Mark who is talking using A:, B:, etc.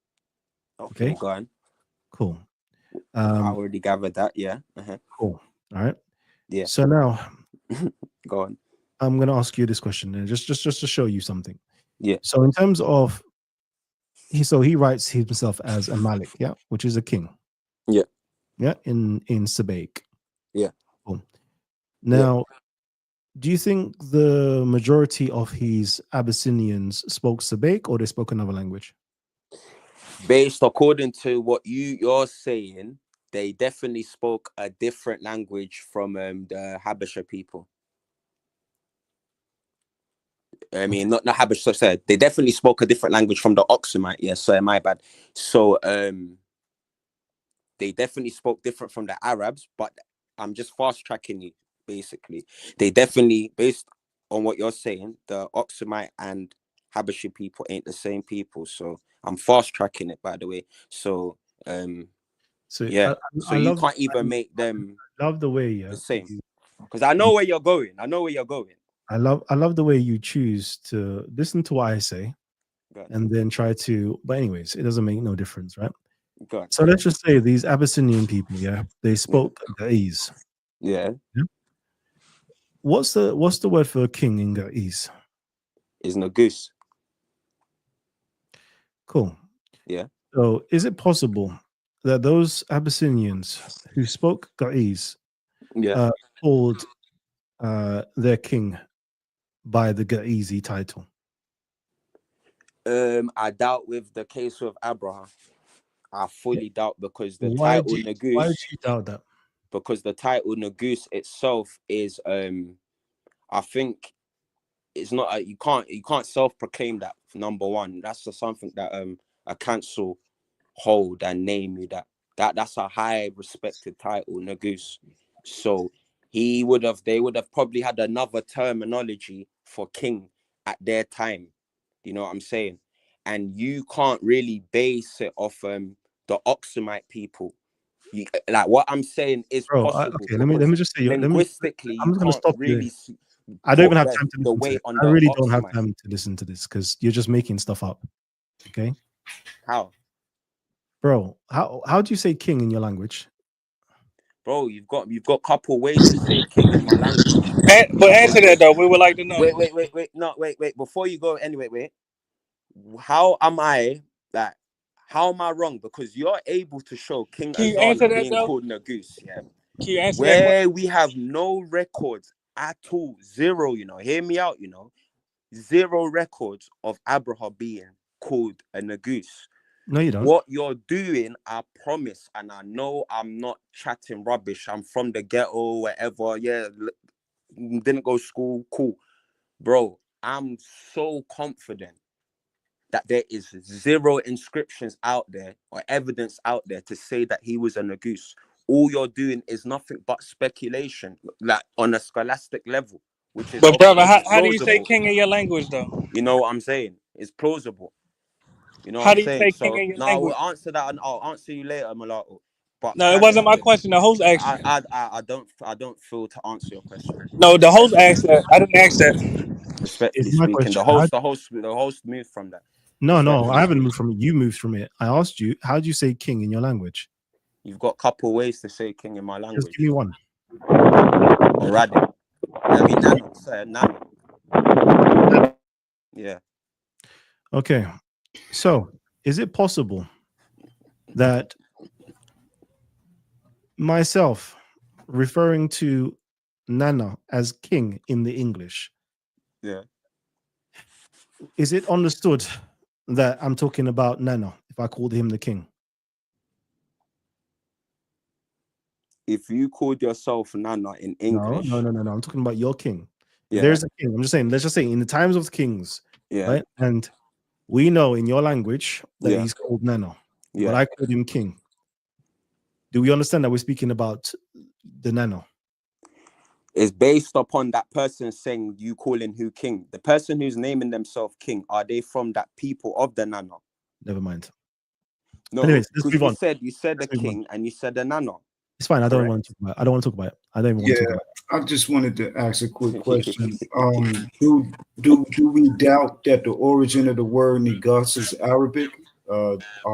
A: Okay,
B: Okay.
A: go on.
B: Cool.
A: I
B: Um,
A: already gathered that. Yeah. Uh-huh.
B: cool. All right.
A: Yeah.
B: So now
A: Go on.
B: I'm going to ask you this question, and just just just to show you something.
A: Yeah.
B: So in terms of he, so he writes himself as a malik, yeah, which is a king.
A: Yeah.
B: Yeah. In in Sabaik.
A: Yeah.
B: Cool. Now, do you think the majority of his Abyssinians spoke Sabaik or they spoke another language?
A: Based according to what you you're saying, they definitely spoke a different language from um, the Habesha people. I mean, not not Habesha. So said they definitely spoke a different language from the Oxumite. Yes, so my bad. So um, they definitely spoke different from the Arabs. But I'm just fast tracking you. Basically, they definitely based on what you're saying, the Oxumite and Habashi people ain't the same people. So I'm fast tracking it, by the way. So um,
B: So
A: Yeah.
B: I,
A: so
B: I
A: you
B: love,
A: can't
B: I
A: even make them
B: love the way uh, yeah,
A: the same because I know where you're going. I know where you're going.
B: I love I love the way you choose to listen to what I say
A: Go on,
B: and then try to but anyways, it doesn't make no difference, right?
A: go on.
B: So let's just say these Abyssinian people, yeah, they spoke Ga'ez.
A: Yeah,
B: What's the what's the word for a king in Ga'ez?
A: is no goose.
B: Cool.
A: Yeah.
B: So is it possible that those Abyssinians who spoke Ga'ez
A: Yeah,
B: Uh, called uh, their king by the Ga'izi title?
A: um, I doubt with the case with Abraham. I fully doubt because the
B: Why
A: title
B: do Why
A: Nagus
B: would you doubt that?
A: because the title Nagus itself is um, I think it's not a, you can't you can't self-proclaim that number one. That's just something that um a council hold and name you that that that's a high respected title, Nagus. So he would have they would have probably had another terminology for king at their time. You know what I'm saying? And you can't really base it off um the Oxumite people. You, like what I'm saying is
B: Bro, I,
A: possible.
B: okay, let me let me just say let me
A: linguistically,
B: I'm
A: you
B: just gonna
A: can't
B: stop you
A: really
B: there.
A: see-
B: I don't
A: put
B: even have
A: the-
B: time to
A: the
B: listen to
A: weight
B: it.
A: on
B: I
A: the
B: really don't have
A: Oxumite.
B: time to listen to this because you're just making stuff up. Okay,
A: How?
B: bro, how how do you say king in your language?
A: Bro, you've got you've got couple ways to say king in my language.
C: An- but answer that though. We would like to know.
A: Wait, wait, wait, wait. No, wait, wait. Before you go, anyway, wait. How am I like? How am I wrong? Because you're able to show King
C: Can you answer
A: Azala
C: that
A: being
C: though?
A: called Nagus, yeah.
C: Can you answer that question?
A: Where we have no records at all, zero. You know, hear me out. You know, zero records of Abraham being called a Nagus.
B: No, you don't.
A: what you're doing, I promise, and I know I'm not chatting rubbish. I'm from the ghetto, whatever. Yeah, l- mm, didn't go to school, cool, bro. I'm so confident that there is zero inscriptions out there or evidence out there to say that he was a Nagus. All you're doing is nothing but speculation, like on a scholastic level, which is
C: But brother,
A: okay,
C: how,
A: it's
C: how do you say
A: plausible.
C: king in your language though?
A: You know what I'm saying? It's plausible. You know what
C: How
A: I'm
C: do you
A: saying?
C: say king
A: So
C: in your
A: no, I
C: language?
A: will answer that, and I'll answer you later, Mulatto. But
C: No, it
A: at the
C: wasn't
A: end
C: my
A: of it,
C: question. The host asked
A: I,
C: it.
A: I, I, I don't, I don't feel to answer your question.
C: No, the host
A: Respectfully,
C: asked that. I didn't ask that.
B: It's
A: respectfully
B: my
A: speaking, the
B: question. How,
A: host, the host, the host moved from that.
B: no, no, I
A: Respectfully
B: haven't moved
A: speaking,
B: from it. You moved from it. I asked you, how do you say king in your language?
A: you've got a couple ways to say king in my
B: Just
A: language.
B: give me one.
A: Already, I mean, Nano, sir, Nano. Yeah,
B: Okay, so is it possible that myself referring to Nana as king in the English,
A: yeah.
B: is it understood that I'm talking about Nana if I called him the king?
A: If you called yourself Nana in
B: No, no,
A: English,
B: no, no, no. I'm talking about your king. If
A: yeah,
B: There's a king. I'm just saying, let's just say in the times of kings,
A: yeah,
B: right? And we know in your language that
A: yeah,
B: he's called Nana, but
A: yeah.
B: I called him king. Do we understand that we're speaking about the Nana?
A: is based upon that person saying you calling who king. The person who's naming themselves king, are they from that people of the nano?
B: Never mind.
A: No,
B: Anyways, let's
A: because
B: move
A: you
B: on.
A: said you said the
B: Let's move on.
A: king and you said the nano,
B: It's fine. I don't
A: correct?
B: want to talk about it. I don't want to talk about it. I don't even want
D: Yeah,
B: to talk about it.
D: I just wanted to ask a quick question. Um, do do do we doubt that the origin of the word Negus is Arabic? Uh,